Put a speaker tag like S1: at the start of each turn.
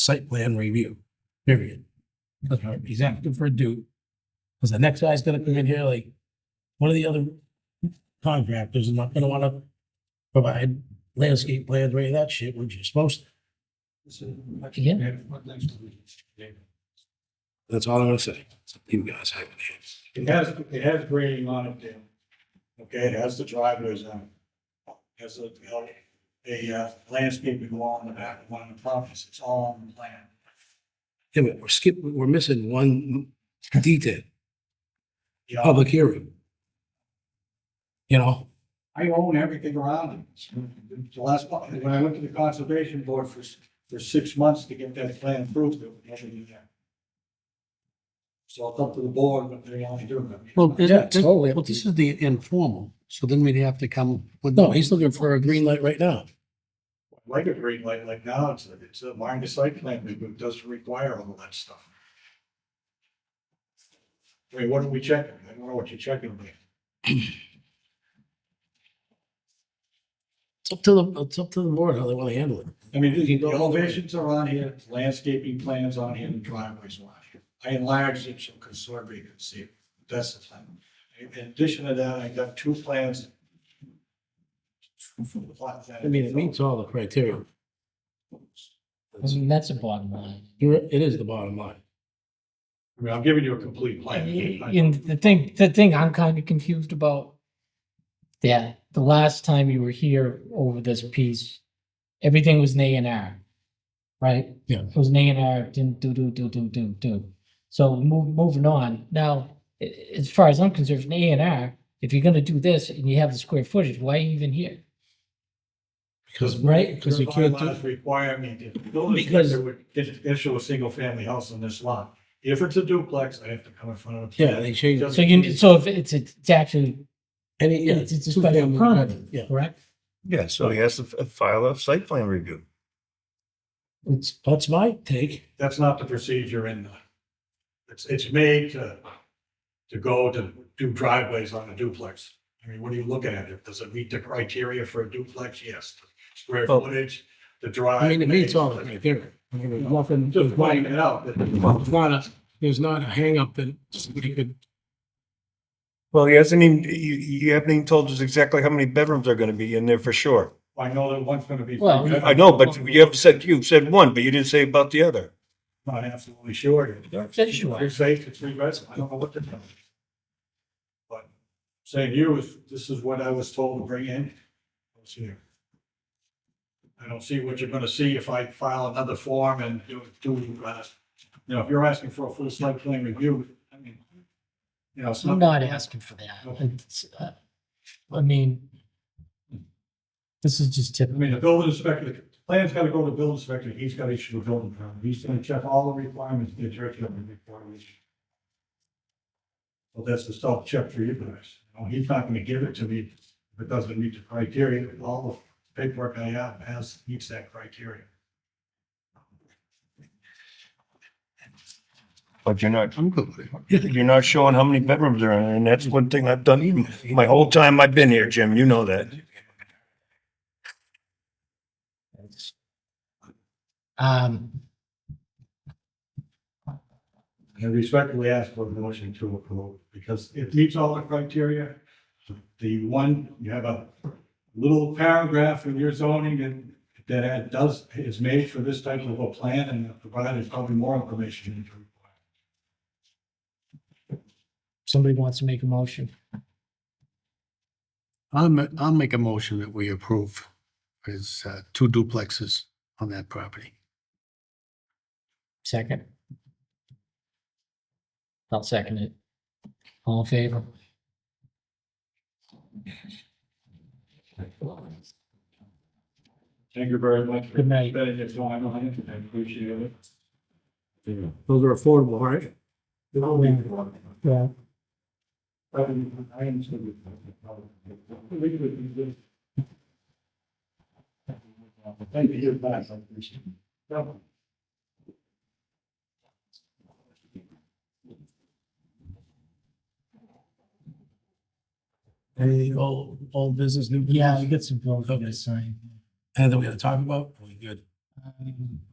S1: site plan review, period. That's right. He's asking for a due. Because the next guy's gonna come in here like, one of the other contractors is not gonna wanna provide landscape plans, or any of that shit, which you're supposed to.
S2: Yeah.
S1: That's all I'm gonna say. You guys have it.
S3: It has, it has grading on it, Dan. Okay, it has the driveways on it. Has a, a uh, landscaping wall in the back of one of the properties. It's all on the plan.
S1: Yeah, but we're skipping, we're missing one detail,
S3: Yeah,
S1: public hearing. You know,
S3: I own everything around it. The last, part- when I went to the conservation board for, s- for six months to get that plan approved, it was never in there. So it's up to the board, but they only do it.
S4: Well,
S1: yeah,
S4: isn't, this-
S1: totally.
S4: well, this is the informal, so then we'd have to come with.
S1: No, he's looking for a green light right now.
S3: Like a green light, like now, it's, it's a minor site plan, it doesn't require all of that stuff. I mean, what are we checking? I don't know what you're checking. but
S1: It's up to the, it's up to the board how they wanna handle it.
S3: I mean,
S1: You
S3: the
S1: don't-
S3: elevations are on here, landscaping plans on here, and driveways are on here. I enlarged it so conservatory could see it. That's the plan. In addition to that, I got two plans.
S1: I mean, it meets all the criteria.
S2: I mean, that's the bottom line.
S1: You're- It is the bottom line.
S3: I mean, I'm giving you a complete plan.
S2: And the thing, the thing I'm kind of confused about, yeah, the last time you were here over this piece, everything was an A and R, right?
S1: Yeah.
S2: It was an A and R, didn't do, do, do, do, do, do. So move, moving on, now, a- a- as far as I'm concerned, an A and R, if you're gonna do this and you have the square footage, why are you even here?
S1: Because, right, because you can't do.
S3: Bylaws Require me to, build
S1: Because-
S3: it would issue a single family house on this lot. If it's a duplex, I have to come in front of. the-
S1: Yeah, they change.
S3: Just-
S2: So you, so if it's, it's actually,
S1: Any, yeah.
S2: it's it's a
S1: two
S2: special
S1: family
S2: permit,
S1: Yeah,
S2: correct?
S5: Yeah, so he has to f- file a site plan review.
S1: it's, that's my take.
S3: That's not the procedure in the, it's, it's made to, to go to do driveways on a duplex. I mean, what are you looking at? If- Does it meet the criteria for a duplex? Yes. Square
S5: Well-
S3: footage, the drive.
S1: I mean, it meets all the criteria. I mean, there's Nothing,
S3: Just
S1: there's
S3: pointing
S1: not-
S3: it out that
S1: there's not a, there's not a hangup that you could,
S5: Well, he hasn't even, you, you haven't even told us exactly how many bedrooms are gonna be in there for sure.
S3: I know that one's gonna be.
S2: Well,
S5: I know, but you have said, you said one, but you didn't say about the other.
S3: Not absolutely sure.
S2: Says you are.
S3: You're safe to three reds, I don't know what to tell you. But saying you is, this is what I was told to bring in. Let's see. I don't see what you're gonna see if I file another form and do, do, uh, you know, if you're asking for a full site plan review, I mean, you know, it's
S2: I'm
S3: not.
S2: not asking for that.
S3: Okay.
S2: It's, uh, I mean, this is just
S3: I
S2: typical.
S3: mean, the building inspector, the plan's gotta go to the building inspector, he's gotta issue a building permit, he's gonna check all the requirements, the curriculum requirements. Well, that's the self-check for you guys, You know, he's not gonna give it to me if it doesn't meet the criteria, all the paperwork I have has, meets that criteria.
S5: But you're not, you're not showing how many bedrooms are in there, and that's one thing I've done my whole time I've been here, Jim, you know that.
S2: Um,
S3: And respectfully ask for a motion to approve, because it meets all the criteria. The one, you have a little paragraph in your zoning and that it does, is made for this type of a plan and provided probably more information. in the report.
S2: somebody wants to make a motion.
S4: I'll, ma- I'll make a motion that we approve his uh, two duplexes on that property.
S2: Second. I'll second it. All in favor?
S3: Thank you very much. for
S2: Good night.
S3: Spending your time on it, I appreciate it.
S1: those are affordable, right?
S2: Yeah.
S3: I am- I am still- Thank you, you're back, I appreciate it. No.
S1: Any old, old business, new business?
S2: Yeah, we get some bills we gotta sign.
S1: Anything we gotta talk about? Are we good?
S2: Um,